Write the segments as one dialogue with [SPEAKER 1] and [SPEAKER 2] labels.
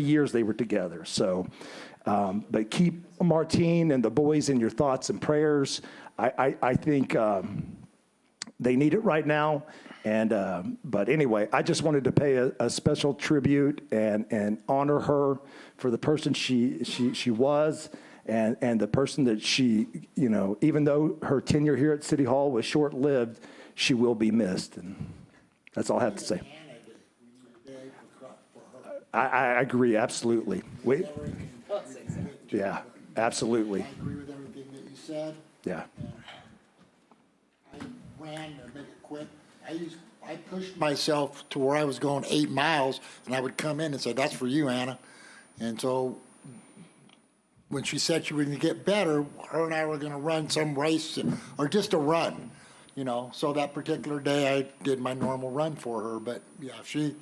[SPEAKER 1] years they were together. So, um, but keep Martine and the boys in your thoughts and prayers. I, I, I think um, they need it right now. And um, but anyway, I just wanted to pay a, a special tribute and and honor her for the person she she she was. And, and the person that she, you know, even though her tenure here at City Hall was short lived, she will be missed. And that's all I have to say. I, I agree, absolutely. We,
[SPEAKER 2] Well, it's six.
[SPEAKER 1] yeah, absolutely.
[SPEAKER 3] I agree with everything that you said.
[SPEAKER 1] Yeah.
[SPEAKER 3] I ran to make it quick. I used, I pushed myself to where I was going eight miles, and I would come in and say, that's for you, Anna. And so when she said she was gonna get better, her and I were gonna run some race, or just a run, you know? So that particular day, I did my normal run for her, but yeah, she,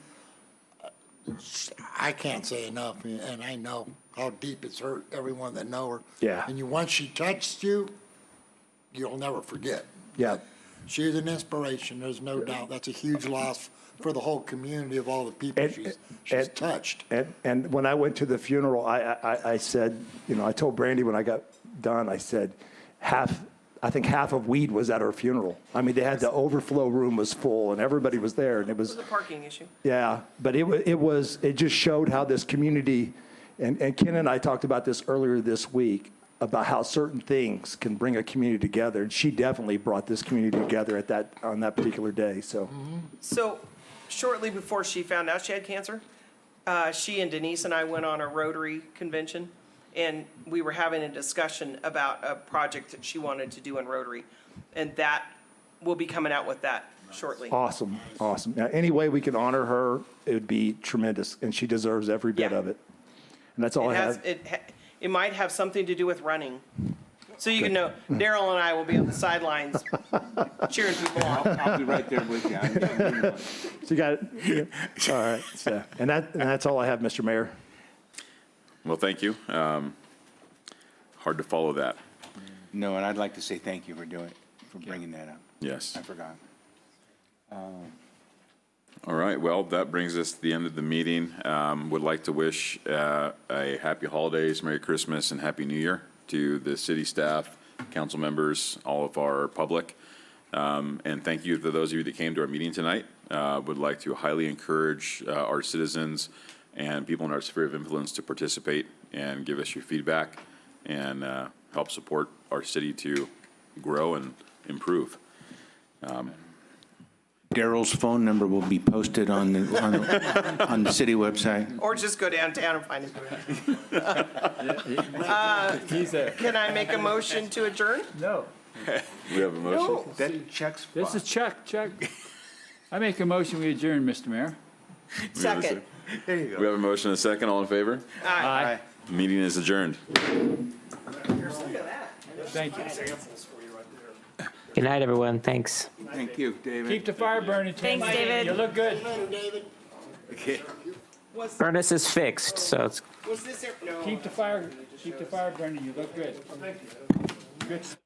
[SPEAKER 3] I can't say enough, and I know how deep it's hurt everyone that know her.
[SPEAKER 1] Yeah.
[SPEAKER 3] And you, once she touched you, you'll never forget.
[SPEAKER 1] Yeah.
[SPEAKER 3] She is an inspiration, there's no doubt. That's a huge loss for the whole community of all the people
[SPEAKER 1] And-
[SPEAKER 3] she's, she's
[SPEAKER 1] and-
[SPEAKER 3] touched.
[SPEAKER 1] And, and when I went to the funeral, I, I, I- I said, you know, I told Brandy when I got done, I said, half, I think half of weed was at her funeral. I mean, they had the overflow room was full and everybody was there and it
[SPEAKER 2] It
[SPEAKER 1] was,
[SPEAKER 2] was a parking issue.
[SPEAKER 1] yeah. But it, wa- it was, it just showed how this community, and, and Ken and I talked about this earlier this week, about how certain things can bring a community together. And she definitely brought this community together at that, on that particular day, so.
[SPEAKER 2] So shortly before she found out she had cancer, uh, she and Denise and I went on a Rotary convention, and we were having a discussion about a project that she wanted to do in Rotary, and that, we'll be coming out with that shortly.
[SPEAKER 1] Awesome, awesome. Now, any way we can honor her, it would be tremendous, and she deserves every bit
[SPEAKER 2] Yeah.
[SPEAKER 1] of it. And that's all I
[SPEAKER 2] It has,
[SPEAKER 1] have.
[SPEAKER 2] it, ha- it might have something to do with running. So you can know, Daryl and I will be on the sidelines cheering people on.
[SPEAKER 4] I'll be right there with you. I'm getting one.
[SPEAKER 1] So you got it? Yeah. All right, so, and that, and that's all I have, Mr. Mayor.
[SPEAKER 5] Well, thank you. Um, Hard to follow that,
[SPEAKER 4] No, and I'd like to say thank you for doing, for bringing that up.
[SPEAKER 5] yes.
[SPEAKER 4] I forgot.
[SPEAKER 5] All right, well, that brings us to the end of the meeting. Um, Would like to wish uh, a happy holidays, Merry Christmas, and Happy New Year to the city staff, council members, all of our public. Um, And thank you to those of you that came to our meeting tonight. Uh, Would like to highly encourage uh, our citizens and people in our sphere of influence to participate and give us your feedback and uh, help support our city to grow and improve.
[SPEAKER 4] Daryl's phone number will be posted on the, on the, on the city website.
[SPEAKER 2] Or just go downtown and find it.
[SPEAKER 6] He's a,
[SPEAKER 2] Can I make a motion to adjourn?
[SPEAKER 6] no,
[SPEAKER 5] We have a motion.
[SPEAKER 4] That checks.
[SPEAKER 6] this is Chuck, Chuck. I make a motion, we adjourn, Mr. Mayor.
[SPEAKER 5] We have a
[SPEAKER 2] Second.
[SPEAKER 5] sec- We have a motion and a second. All in favor?
[SPEAKER 6] Aye.
[SPEAKER 5] Meeting is adjourned.
[SPEAKER 2] Look at that.
[SPEAKER 6] Thank you.
[SPEAKER 7] Good night, everyone. Thanks.
[SPEAKER 4] Thank you, David.
[SPEAKER 6] Keep the fire burning. Tim.
[SPEAKER 7] Thanks, David.
[SPEAKER 6] You look good.
[SPEAKER 2] Was,
[SPEAKER 7] Furnace is fixed, so it's
[SPEAKER 2] was this, no.
[SPEAKER 6] Keep the fire, keep the fire burning. You look good. Good.